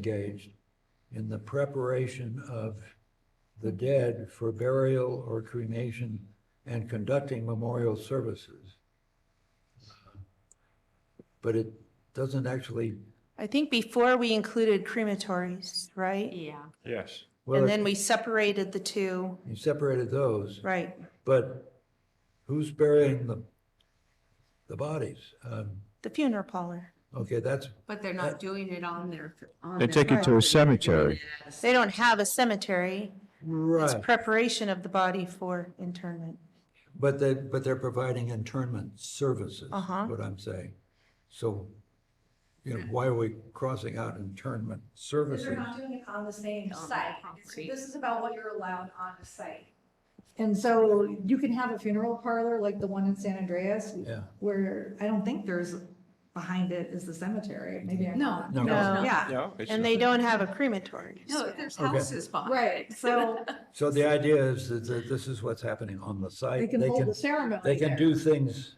engaged in the preparation of the dead for burial or cremation and conducting memorial services. But it doesn't actually, I think before we included crematories, right? Yeah, Yes. And well, then we separated the two, you separated those, right? but who's burying the, the bodies? Um, The funeral parlor. Okay, that's, but they're not doing it on their. on They their take it to a cemetery. They don't have a cemetery. It's right, preparation of the body for internment. but they, but they're providing internment services, Uh-huh. what I'm saying. So, you know, why are we crossing out internment services? Because you're not doing it on the same On the site. property. This is about what you're allowed on the site. And so you can have a funeral parlor like the one in San Andreas, Yeah. where I don't think there's, behind it is the cemetery, maybe I'm No, not. No. no, No. no, Yeah, No. Ah, And they don't have a crematory. no, there's Okay. houses behind. right, so So the idea is that that this is what's happening on the site. they can hold the ceremony They can there. do things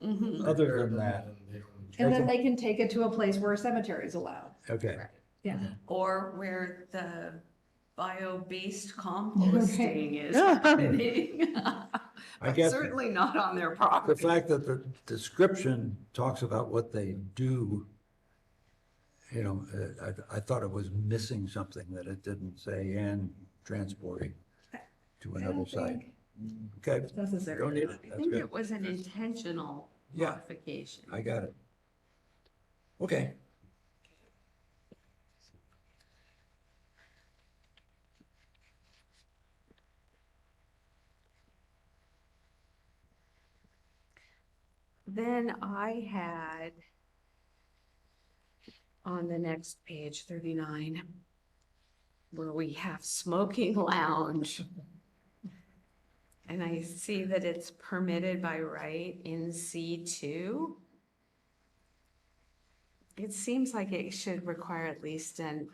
Mhm. other than that. And then they can take it to a place where a cemetery is allowed. Okay, Yeah. Or where the bio-based composting is Yeah. happening. I But guess Certainly not on their the property. fact that the description talks about what they do, you know, uh, I, I thought it was missing something that it didn't say and transporting to I don't another site. think Okay, it's necessary. don't need it, I that's think good, it was an intentional Yeah. modification. I got it. Okay, Then I had on the next page, thirty-nine, where we have smoking lounge. And I see that it's permitted by right in C two. It seems like it should require at least an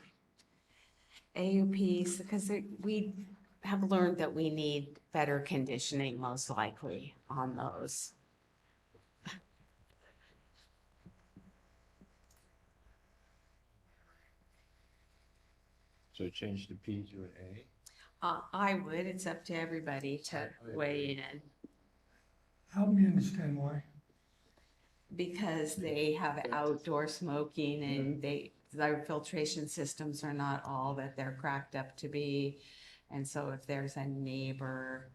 AUP, because it- we have learned that we need better conditioning most likely on those. So change the P to an A? Uh, I would, it's up to everybody to weigh in, Help me understand why. because they have outdoor smoking and they, their filtration systems are not all that they're cracked up to be. And so if there's a neighbor,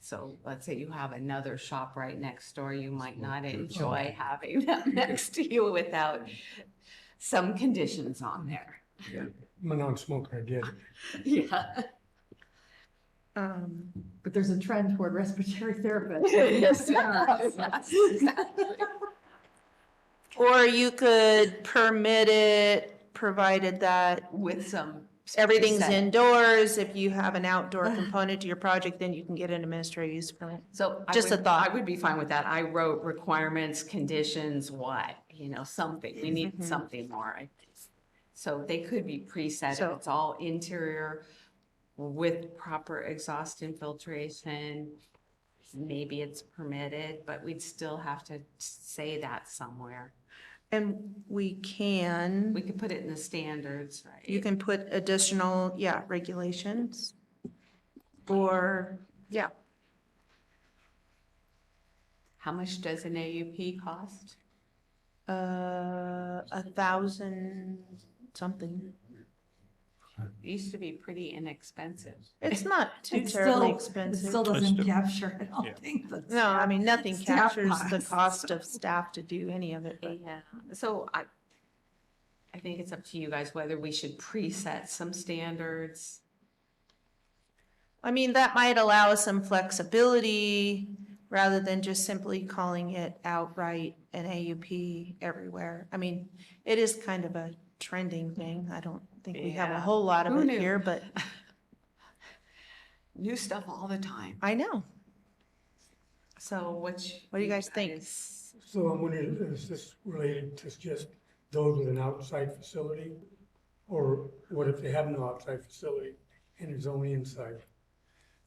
so let's say you have another shop right next door, you might not enjoy having them next to you without some conditions on there. I'm a non-smoker, I get it. Yeah. Um, But there's a trend toward respiratory therapists. Yes, yes, exactly. Or you could permit it, provided that With some. everything's set. indoors. If you have an outdoor component to your project, then you can get an administrative use permit. So. I Just a would- thought. I would be fine with that. I wrote requirements, conditions, what, you know, something. We need Mhm. something more. I So they could be preset. So- If it's all interior with proper exhaust infiltration, maybe it's permitted, but we'd still have to say that somewhere. And we can. We could put it in the standards, right? You can put additional, yeah, regulations or, yeah, How much does an AUP cost? uh, a thousand something. It used to be pretty inexpensive. It's not too It's still- terribly It still expensive. doesn't the- capture, I yeah. don't think. the No, I mean, nothing staff captures the costs. cost of staff to do any of it, but Yeah, so I, I think it's up to you guys whether we should preset some standards. I mean, that might allow us some flexibility rather than just simply calling it outright an AUP everywhere. I mean, it is kind of a trending thing. I don't think we have a Yeah. whole lot of Who it knew? here, but New stuff all the time. I know. So which. What do you guys think? So I'm wondering, is this related to just those with an outside facility? Or what if they have no outside facility and it's only inside?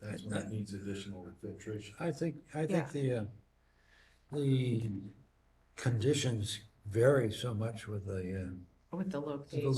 That's when it needs additional filtration. I think, I Yeah. think the, uh, the conditions vary so much with the, uh, With the with the uh, location.